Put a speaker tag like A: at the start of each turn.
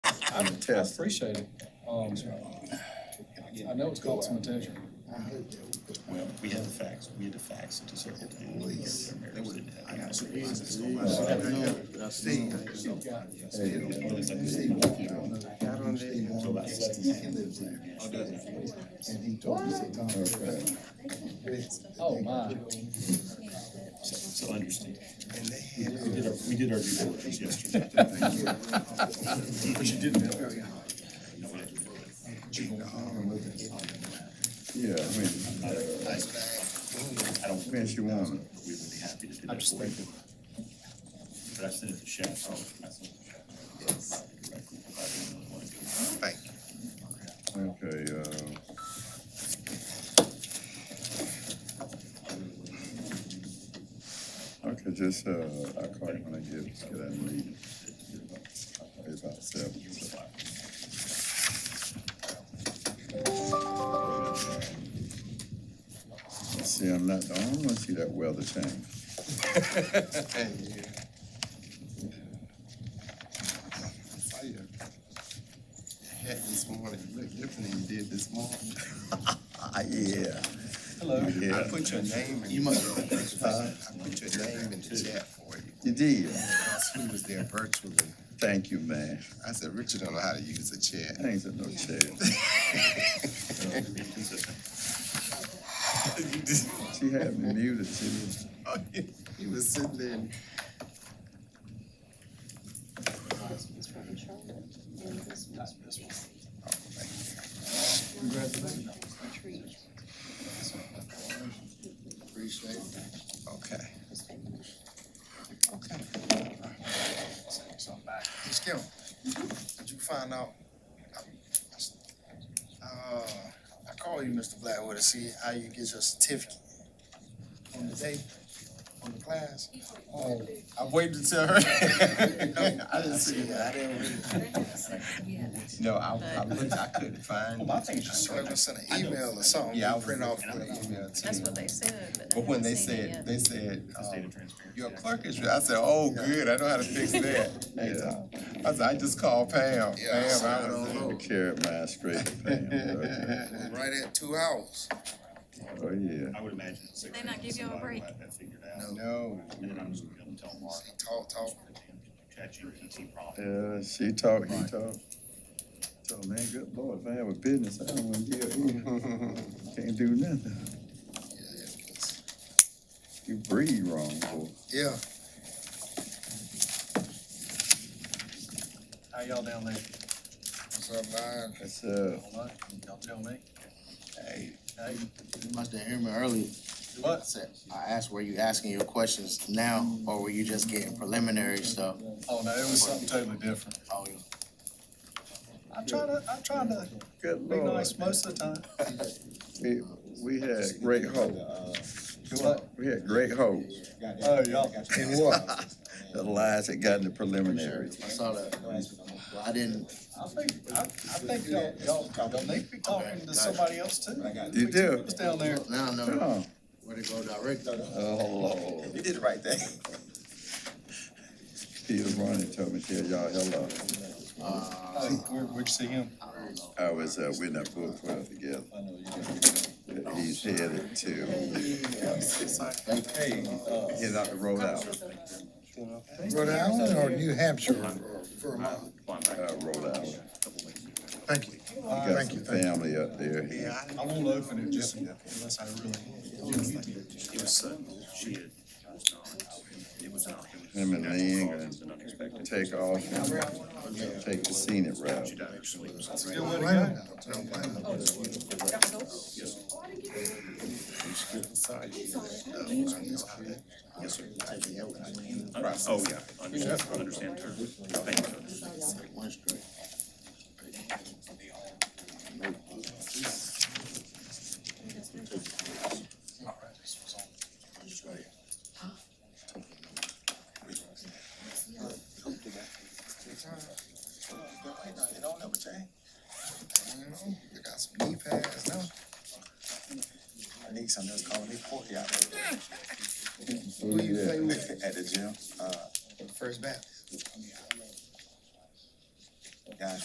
A: I'm a test.
B: Appreciate it. Um, I know it's caught some attention.
A: Well, we had the facts, we had the facts to circle. They wouldn't have.
B: Oh, my.
A: So, so understand. We did our, we did our due diligence yesterday. But you didn't help.
C: Yeah, I mean,
A: I don't, we would
C: fancy woman.
A: be happy to do that for you. But I sent it to Shaq. I sent it to Shaq. Directly, I didn't really wanna do it.
C: Okay, uh. Okay, just, uh, I call you when I get, get out of the meeting. Probably About seven. See, I'm not, I don't wanna see that weather change.
D: This morning, look different than you did this morning.
C: Ah, yeah.
B: Hello.
D: I
C: Yeah,
D: put your name in. You must. I put your name in the chat for you.
C: you did.
D: He was there virtually.
C: Thank you, man.
D: I said, Richard don't know how to use a chat.
C: I ain't said no shit.
A: So, be consistent.
C: She had me muted, she was,
D: He was sitting there. and-
E: This one's from Charlotte, and this one's from Tree.
D: Okay.
E: Just take them.
D: Okay. Miss Kim,
F: Mm-hmm.
D: did you find out? Uh, I called you, Mr. Blackwood, to see how you get your certificate on the day, on the class. Oh, I waited to tell her. No, I didn't see it. I didn't read it. No, I, I looked, I couldn't find.
A: Well, my thing is just
D: I was sent an email or something.
F: Yeah, I
D: You print
F: was-
D: off an email to
F: That's
D: you.
F: what they said, but.
D: But when they
F: haven't seen it
D: said,
F: yet.
D: they said,
A: It's
D: um,
A: data transparency.
D: your clerk is, I said, oh, good, I know how to fix that. I said, I just called Pam, Pam, I was
C: I carried my straight to Pam. okay.
D: Right at two hours.
C: Oh, yeah.
A: I would imagine. it's like-
F: They not give y'all a
A: somebody
F: break?
A: will have that figured out.
D: No.
A: And then I'm just gonna be able to tell Mark.
D: Talk, talk.
A: ChatGPT problem.
C: Yeah, she talk, he talk. So, man, good lord, if I have a business, I don't wanna deal with you. Can't do nothing. You breathe wrong, boy.
D: Yeah.
G: How y'all down there?
D: What's up, man?
C: That's, uh,
G: All right, y'all tell me.
D: Hey,
G: Hey,
H: You must have heard me earlier. I
G: what?
H: said, I asked, were you asking your questions now or were you just getting preliminary stuff?
G: Oh, no, it was something totally different.
H: Oh,
G: I try to, I try to
C: good
G: be
C: lord.
G: nice most of the time.
C: We, we had great hope.
G: What?
C: We had great hope.
G: Oh, y'all.
C: And what? The lies that got in the preliminary.
H: I saw that. I didn't,
G: I think, I, I think y'all, y'all, y'all need to be talking to somebody else too.
C: You do?
G: It was down there.
H: now
C: Come
H: I know
C: on.
H: where to go direct.
C: Uh-huh. Oh, Lord.
D: You did the right thing.
C: Peter Ronnie told me, tell y'all hello.
G: Hey, Where, where'd you see him?
C: I was, uh, we're not book club together. He's headed to,
G: Hey, uh,
C: he's out to Rhode Island,
D: Rhode Island or New Hampshire?
C: uh, Rhode Island.
D: Thank you.
C: He got some family up there. He-
G: I won't open it just unless I really.
A: It was sudden. She had, it was not, it was not. it was-
C: Him and Ling
A: It was
C: and
A: an unexpected.
C: take off, and take the scenic route.
A: She died of sleep.
G: That's a good way to go.
A: Oh, yeah. Understand, understand her. Thank you.
D: It don't ever change. You know, they got some knee pads now.
I: My niece, I know, is calling me Porky out there
C: Oh, yeah.
I: at the gym. Uh,
D: First bat.
I: guys,